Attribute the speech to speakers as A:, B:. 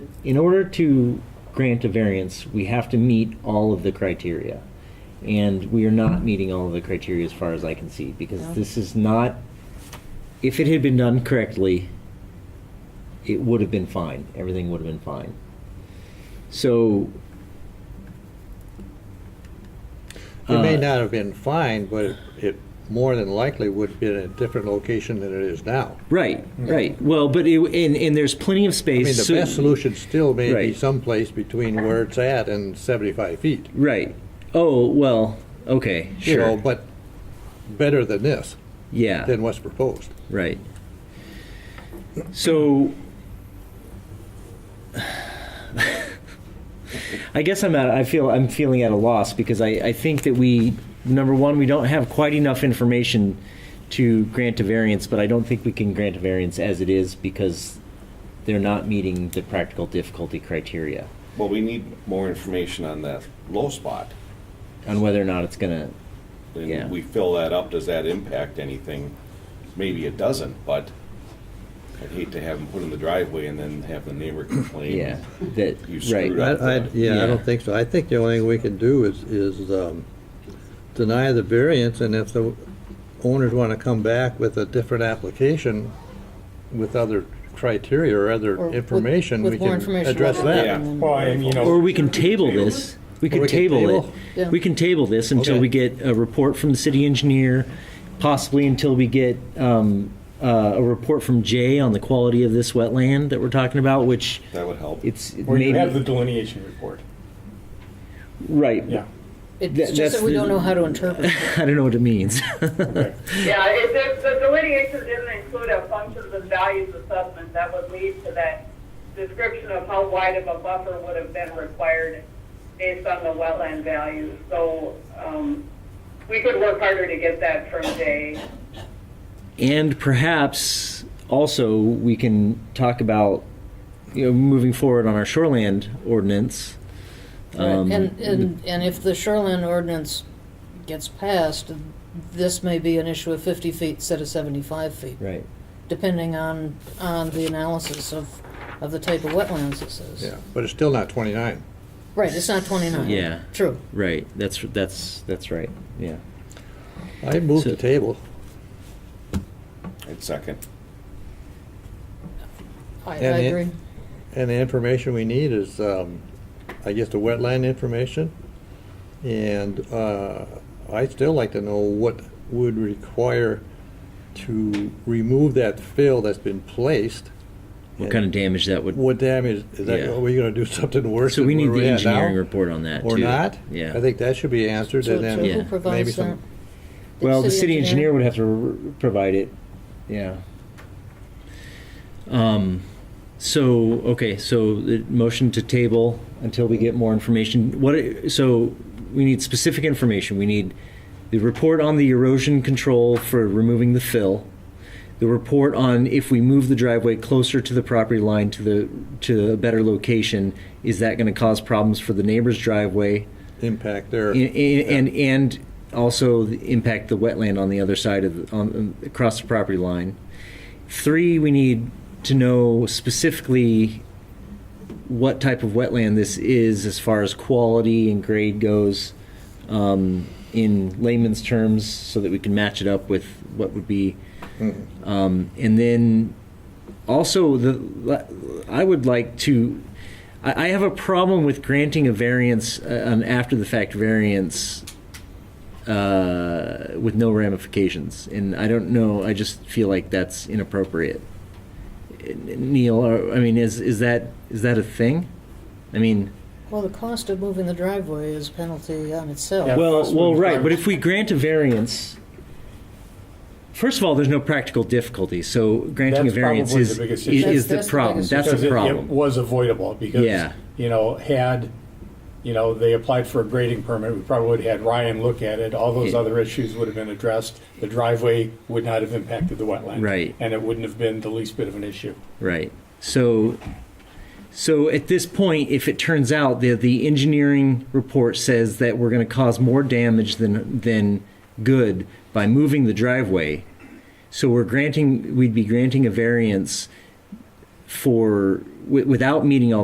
A: in order to grant a variance, we have to meet all of the criteria. And we are not meeting all of the criteria as far as I can see, because
B: No.
A: this is not, if it had been done correctly, it would have been fine. Everything would have been fine. So.
C: It may
A: uh,
C: not have been fine, but it- it more than likely would have been in a different location than it is now.
A: Right, right. Well, but it, and, and there's plenty of
C: I
A: space.
C: mean, the
A: so-
C: best solution still may be
A: Right.
C: someplace between where it's at and 75 feet.
A: Right. Oh, well, okay,
C: You
A: sure.
C: know, but better than this,
A: yeah.
C: than what's proposed.
A: Right. So, I guess I'm at. I feel I'm feeling at a loss because I, I think that we number one we don't have quite enough information to grant a variance, but I don't think we can grant a variance as it is because they're not meeting the practical difficulty criteria
D: Well, we need more information on that low spot.
A: on whether or not it's gonna. Yeah.
D: And we fill that up, does that impact anything? Maybe it doesn't, but I'd hate to have them put in the driveway and then have the neighbor complain.
A: Yeah. That
D: You
A: right.
D: screwed up.
C: I, I, yeah,
A: Yeah.
C: I don't think so. I think the only thing we can do is, is um, deny the variance, and if the owners want to come back with a different application with other criteria or
B: Or
C: other
B: with-
C: information,
B: with
C: we
B: more
C: can
B: information
C: address
B: rather than-
C: that.
D: Yeah.
E: Well, I mean, you know.
A: Or we can table this. We
C: Or
A: can
C: we can
A: table
C: table?
B: Yeah.
A: it. We can table this until
C: Okay.
A: we get a report from the city engineer, possibly until we get um, uh, a report from Jay on the quality of this wetland that we're talking about, which
D: That would help.
A: it's
E: Or you have the
A: maybe,
E: delineation report.
A: right.
E: Yeah.
A: That-
B: It's just
A: that's
B: that we
A: the-
B: don't know how to interpret it.
A: I don't know what it means.
E: Okay.
F: Yeah, if the, the delineation didn't include a functions and values assessment, that would lead to that description of how wide of a buffer would have been required based on the wetland values. So, um, we could work harder to get that from Jay.
A: And perhaps also we can talk about, you know, moving forward on our shoreland ordinance. Um,
B: And, and, and if the shoreline ordinance gets passed, this may be an issue of 50 feet instead of 75 feet,
A: Right.
B: depending on, on the analysis of, of the type of wetlands this is.
C: Yeah, but it's still not 29.
B: Right, it's not 29.
A: Yeah.
B: True.
A: Right. That's that's that's right. Yeah.
C: I moved
A: So-
C: the table.
D: It's second.
B: I, I
C: And it-
B: agree.
C: And the information we need is, um, I guess, the wetland information. And uh, I'd still like to know what would require to remove that fill that's been placed.
A: What kind of damage that would?
C: What damage, is that,
A: Yeah.
C: are we going to do something worse?
A: so we
C: than
A: need
C: where
A: the
C: we're at now?
A: engineering report on that
C: Or
A: too.
C: not?
A: Yeah.
C: I think that should be answered
B: So
C: and
B: so
C: then
B: who
A: Yeah.
C: maybe
B: provides that?
C: some,
A: well, the city engineer would have to r- provide it. Yeah. Um, so okay, so the motion to table until we get more information. What? i- So we need specific information. We need the report on the erosion control for removing the fill. The report on if we move the driveway closer to the property line to the to a better location, is that going to cause problems for the neighbor's driveway?
C: impact there.
A: And- And, and, and also the impact the wetland on the other side of, the- on, across the property line. Three, we need to know specifically what type of wetland this is as far as quality and grade goes, um, in layman's terms, so that we can match it up with what would be.
C: Mm-hmm.
A: Um, and then also the I would like to I I have a problem with granting a variance uh, an after the fact variance uh, with no ramifications and I don't know I just feel like that's inappropriate Neil or, I mean is is that is that a thing I mean
B: Well, the cost of moving the driveway is penalty on itself.
E: Yeah.
A: well,
E: first
A: well,
E: one
A: right. But
E: first.
A: if we grant a variance, first of all, there's no practical difficulty. So granting
E: That's
A: a variance
E: probably
A: is
E: the
A: is,
E: biggest
B: issue.
A: is the
B: That's- that's the
A: problem.
B: biggest
A: That's
E: Because it-
A: a
E: It
A: problem.
E: was avoidable
A: Yeah.
E: because, you know, had, you know, they applied for a grading permit, we probably would have had Ryan look at it. All those
A: Yeah.
E: other issues would have been addressed. The driveway would not have impacted the wetland.
A: Right.
E: And it wouldn't have been the least bit of an issue.
A: Right. So, so at this point, if it turns out that the engineering report says that we're going to cause more damage than than good by moving the driveway, so we're granting we'd be granting a variance for wi- without meeting all